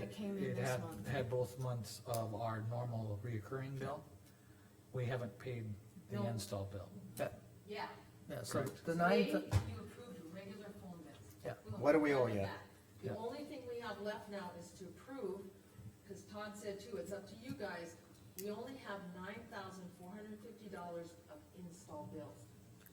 that came in it this had, month. had both months of our normal reoccurring bill. We haven't paid the No. install bill. That- Yeah, Yeah, so Correct. the today ninth, you approved regular phone bills. Yeah. don't What do we have owe that. ya? The Yeah. only thing we have left now is to approve, cause Todd said too, it's up to you guys, we only have nine thousand four hundred and fifty dollars of install bills.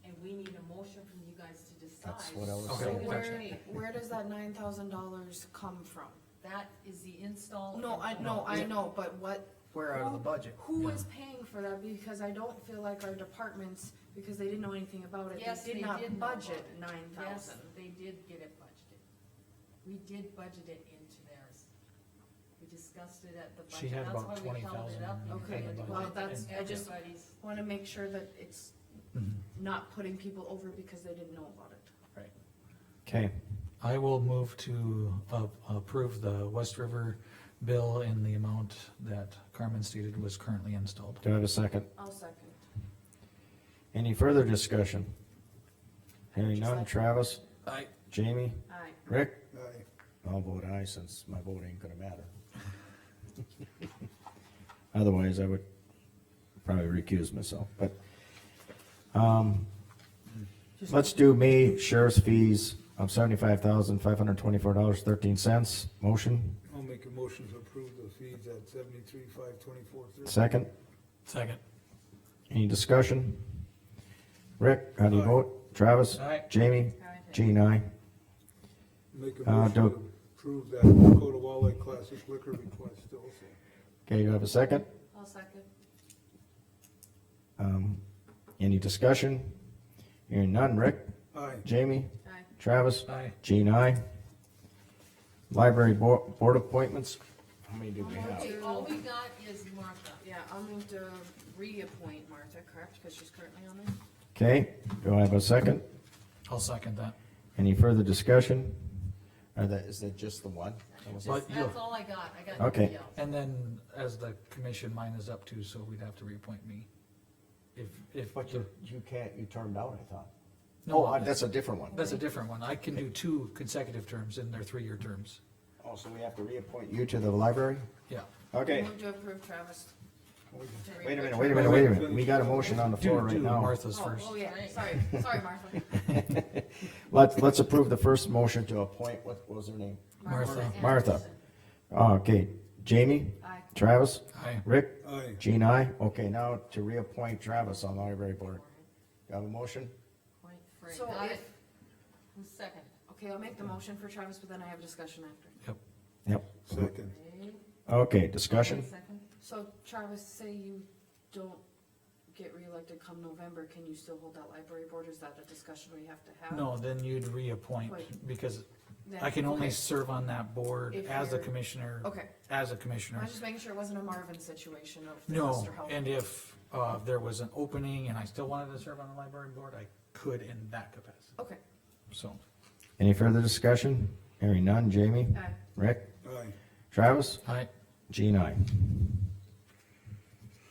And we need a motion from you guys to decide. That's what I was Okay. So saying. Where, Where, where does that nine thousand dollars come from? that is the install. No, and- I, no, I know, but what, we're out of the budget. who is paying for that? Because I don't feel like our departments, because they didn't know anything about it, Yes, they they did did not know budget about nine Yes, thousand. they did get it budgeted. We did budget it into theirs. We discussed it at the budget. She had That's about why we twenty held it thousand. up. Okay, well, that's- I just- Everybody's, Wanna make sure that it's Mm-hmm. not putting people over because they didn't know about it. Okay, I will move to a- approve the West River bill in the amount that Carmen stated was currently installed. do I have a second? I'll second. Any further discussion? Hearing none, Travis, I, Jamie, Aye. Rick, Aye. I'll vote aye since my vote ain't gonna matter. Otherwise, I would probably recuse myself, but, um, let's do May sheriff's fees of seventy-five thousand, five hundred twenty-four dollars, thirteen cents. Motion, I'll make a motion to approve the fees at seventy-three, five, twenty-four, thirty. second. Second. Any discussion? Rick, how do you vote? Travis? Aye. Jamie? Jean, aye. Make a Uh, motion don't- to approve that Dakota Walleye Classic liquor request also. Okay, you have a second? I'll second. Um, any discussion? Hearing none, Rick, Aye, Jamie, Aye. Travis, Aye. Jean, aye. Library Bo- Board appointments, how many do we have? okay, all we got is Martha. Yeah, I'll move to reappoint Martha, correct, because she's currently on there? Okay, do I have a second? I'll second that. Any further discussion? Or that, is that just the one? That was- But Just, you- that's all I got. I got nobody Okay. else. And then as the commission, mine is up too, so we'd have to reappoint me. If, if. But you, you can't, you turned down, I thought. No, Oh, that's a different one. That's a different one. I can do two consecutive terms in their three-year terms. Oh, so we have to reappoint you to the library? Yeah. Okay, Move to approve Travis. to wait a minute, reappoint. wait a minute, wait a minute. We got a motion on the floor Do, right do now. Martha's Oh, first. oh, yeah, sorry, sorry, Martha. Let's, let's approve the first motion to appoint, what was her name? Martha. Martha. Okay, Jamie, Aye. Travis, Aye. Rick, aye. Jean, I. Okay, now to reappoint Travis on the library board. Do you have a motion? Point three. So Got if- it? Who's second? Okay, I'll make the motion for Travis, but then I have discussion after. Yep. Yep. Second, Okay, Okay, discussion? Second? So Travis, say you don't get reelected come November, can you still hold that library board? Is that a discussion we have to have? No, then you'd reappoint Wait. because Then- I can only okay. serve on that board If as a you're- commissioner, Okay, as a I commissioner. was just making sure it wasn't a Marvin situation of the No, Mr. Howell. and if, uh, there was an opening and I still wanted to serve on the library board, I could in that capacity, Okay, so. Any further discussion? Hearing none. Jamie, aye. Rick, aye. Travis, I, Jean, I.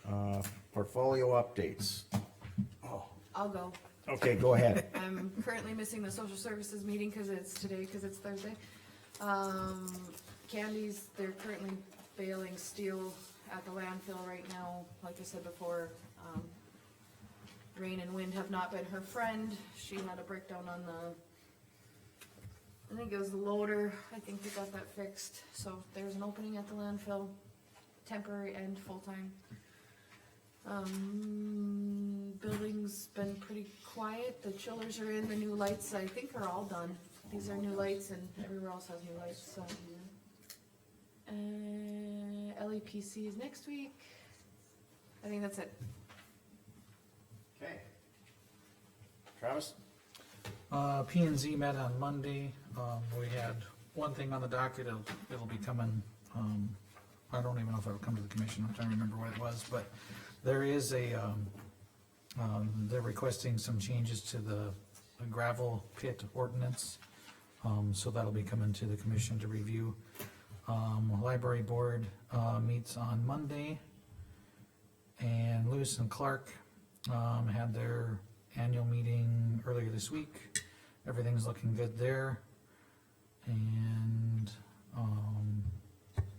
Uh, portfolio updates. I'll go. Okay, go ahead. I'm currently missing the social services meeting because it's today, because it's Thursday. Um, Candy's, they're currently baling steel at the landfill right now, like I said before. um, Rain and wind have not been her friend, she had a breakdown on the, I think it was the loader, I think we got that fixed, so there's an opening at the landfill, temporary and full-time. Um, building's been pretty quiet, the chillers are in, the new lights, I think are all done. These are new lights and everywhere else has new lights, so. Uh, LEPC is next week. I think that's it. Okay. Travis? uh, P and Z met on Monday. Um, we had one thing on the docket, it'll, it'll be coming, um, I don't even know if it'll come to the commission, I'm trying to remember what it was, but there is a, um, um, they're requesting some changes to the gravel pit ordinance. Um, so that'll be coming to the commission to review. Um, library board, uh, meets on Monday. And Lewis and Clark, um, had their annual meeting earlier this week. Everything's looking good there. And, um,